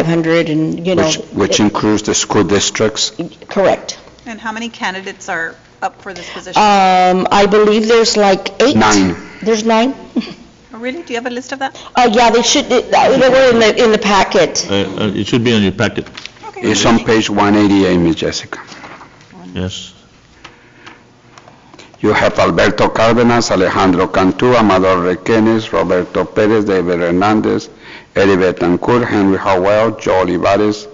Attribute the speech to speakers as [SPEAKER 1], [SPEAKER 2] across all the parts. [SPEAKER 1] 500 and, you know,
[SPEAKER 2] Which, which includes the school districts?
[SPEAKER 1] correct.
[SPEAKER 3] And how many candidates are up for this position? Oh,
[SPEAKER 1] Um, I believe there's like eight.
[SPEAKER 2] Nine.
[SPEAKER 1] There's nine?
[SPEAKER 3] Oh, Really? Do you have a list of that?
[SPEAKER 1] Uh, yeah, they should, they uh, they were in the, in the packet.
[SPEAKER 4] Uh, uh, It should be on your packet,
[SPEAKER 3] Okay.
[SPEAKER 2] It's on page 188, Ms. Jessica.
[SPEAKER 4] yes.
[SPEAKER 2] You have Alberto Cárdenas, Alejandro Cantú, Amador Requenes, Roberto Pérez, David Hernández, Eddie Betancourt, Henry Howell, Joe Olivares,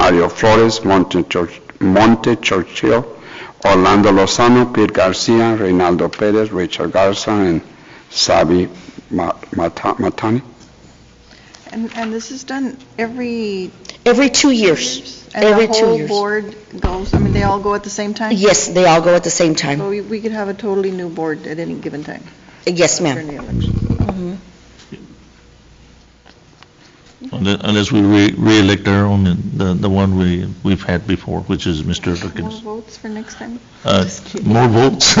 [SPEAKER 2] Mario Flores, Monte Church- Monte Churchill, Orlando Lozano, Pete Garcia, Reinaldo Pérez, Richard Garza, and Sabi Ma- Mata- Matani.
[SPEAKER 5] And, and this is done every
[SPEAKER 1] Every two years.
[SPEAKER 5] years?
[SPEAKER 1] Every two
[SPEAKER 5] And the whole
[SPEAKER 1] years.
[SPEAKER 5] board goes, I mean, they all go at the same time?
[SPEAKER 1] Yes, they all go at the same
[SPEAKER 5] So
[SPEAKER 1] time.
[SPEAKER 5] we- we could have a totally new board at any given time
[SPEAKER 1] Yes, ma'am.
[SPEAKER 5] during the election.
[SPEAKER 4] Unle- Unless we re- re-elect our own, uh, the the one we, we've had before, which is Mr.
[SPEAKER 5] More
[SPEAKER 4] Perkins.
[SPEAKER 5] votes for next time?
[SPEAKER 4] Uh, More votes?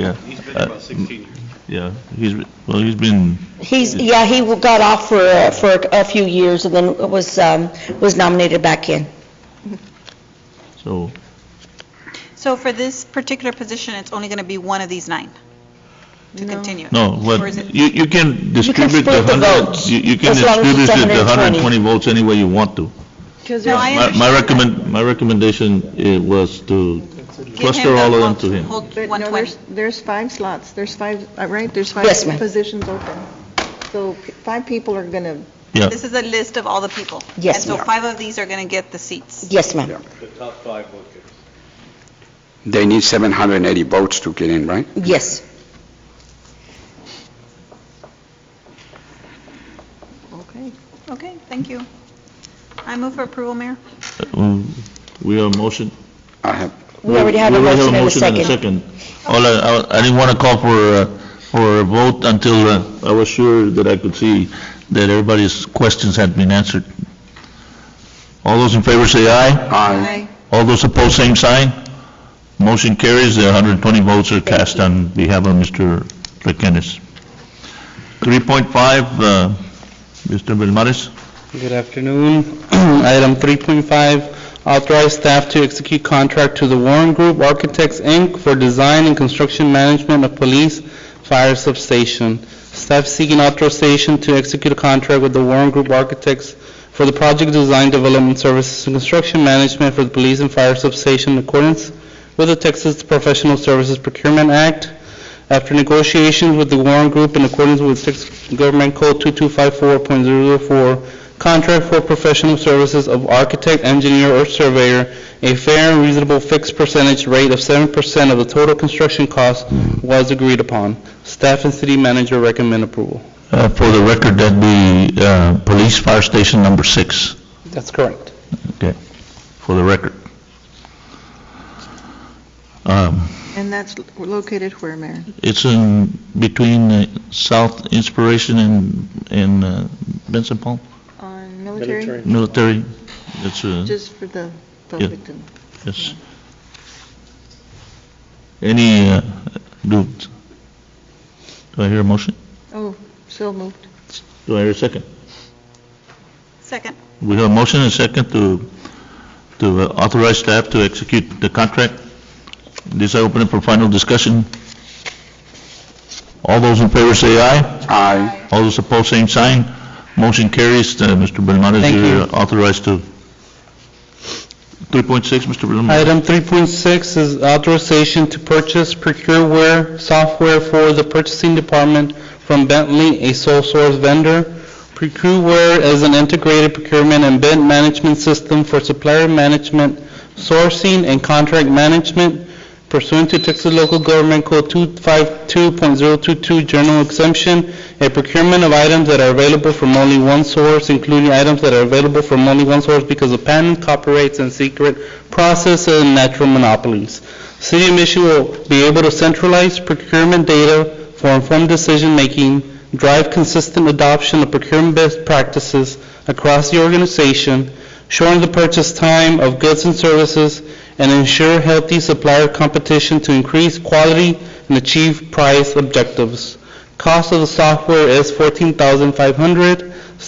[SPEAKER 4] Yeah. He's been about 16 years. Yeah, he's, be- well, he's been,
[SPEAKER 1] He's, yeah, he got off for, uh, for a few years and then was, um, was nominated back in.
[SPEAKER 4] so,
[SPEAKER 3] So for this particular position, it's only going to be one of these nine to continue?
[SPEAKER 4] no,
[SPEAKER 3] Or is it-
[SPEAKER 4] but you, you can distribute the
[SPEAKER 1] split the
[SPEAKER 4] 100,
[SPEAKER 1] votes,
[SPEAKER 4] you you can
[SPEAKER 1] as long as it's
[SPEAKER 4] distribute the
[SPEAKER 1] 120.
[SPEAKER 4] 120 votes any way you want to.
[SPEAKER 5] Because
[SPEAKER 3] No, I
[SPEAKER 4] My my
[SPEAKER 3] understand.
[SPEAKER 4] recommend, my recommendation uh, was to
[SPEAKER 3] Give him
[SPEAKER 4] cluster
[SPEAKER 3] the
[SPEAKER 4] all of them
[SPEAKER 3] whole-
[SPEAKER 4] to him.
[SPEAKER 3] whole
[SPEAKER 5] But no,
[SPEAKER 3] 120.
[SPEAKER 5] there's, there's five slots, there's five, uh, right, there's five
[SPEAKER 1] Yes, ma'am.
[SPEAKER 5] positions open. So p- five people are going to,
[SPEAKER 4] Yeah.
[SPEAKER 3] This is a list of all the people?
[SPEAKER 1] Yes,
[SPEAKER 3] And so
[SPEAKER 1] ma'am.
[SPEAKER 3] five of these are going to get the seats?
[SPEAKER 1] Yes, ma'am.
[SPEAKER 2] They need 780 votes to get in, right?
[SPEAKER 1] Yes.
[SPEAKER 5] okay.
[SPEAKER 3] Okay, thank you. I move for approval, Mayor.
[SPEAKER 4] Um, We are motion,
[SPEAKER 2] I have
[SPEAKER 1] We already have a motion and a second.
[SPEAKER 4] second. All I- I, I didn't want to call for, uh, for a vote until uh, I was sure that I could see that everybody's questions had been answered. All those in favor say aye.
[SPEAKER 2] Aye.
[SPEAKER 4] All those opposed, same sign. Motion carries, the 120 votes are cast on behalf of Mr. Requenes. 3.5, uh, Mr. Belmares.
[SPEAKER 6] Good afternoon. Item 3.5, authorize staff to execute contract to the Warren Group Architects, Inc. for design and construction management of police fire substation. Staff seeking authorization to execute a contract with the Warren Group Architects for the project design, development services, and construction management for the police and fire substation in accordance with the Texas Professional Services Procurement Act. After negotiations with the Warren Group in accordance with Texas Government Code 2254.004, contract for professional services of architect, engineer, or surveyor, a fair and reasonable fixed percentage rate of 7% of the total construction cost was agreed upon. Staff and city manager recommend approval.
[SPEAKER 4] Uh, For the record, that'd be uh, Police Fire Station Number 6.
[SPEAKER 6] That's correct.
[SPEAKER 4] Okay, for the record. Um,
[SPEAKER 5] And that's lo- located where, Mayor?
[SPEAKER 4] It's in between uh, South Inspiration and, and uh, Benson Palm
[SPEAKER 5] On military?
[SPEAKER 4] Military. It's, uh,
[SPEAKER 5] Just for the public to.
[SPEAKER 4] yes. Any, uh, do, do I hear a motion?
[SPEAKER 5] Oh, so moved.
[SPEAKER 4] Do I hear a second?
[SPEAKER 3] Second.
[SPEAKER 4] We have a motion and a second to, to authorize staff to execute the contract. This I open it for final discussion. All those in favor say aye.
[SPEAKER 2] Aye.
[SPEAKER 4] All those opposed, same sign. Motion carries. Uh, Mr. Belmonte,
[SPEAKER 6] Thank
[SPEAKER 4] you're
[SPEAKER 6] you.
[SPEAKER 4] authorized to... 3.6, Mr. Belmonte.
[SPEAKER 6] Item 3.6 is authorization to purchase procureware software for the purchasing department from Bentley, a sole source vendor. Procureware is an integrated procurement and bid management system for supplier management, sourcing, and contract management pursuant to Texas Local Government Code 252.022, general exemption, a procurement of items that are available from only one source, including items that are available from only one source because of patent, copyrights, and secret processes and natural monopolies. City of Mission will be able to centralize procurement data for informed decision-making, drive consistent adoption of procurement best practices across the organization, shorten the purchase time of goods and services, and ensure healthy supplier competition to increase quality and achieve price objectives. Cost of the software is $14,500.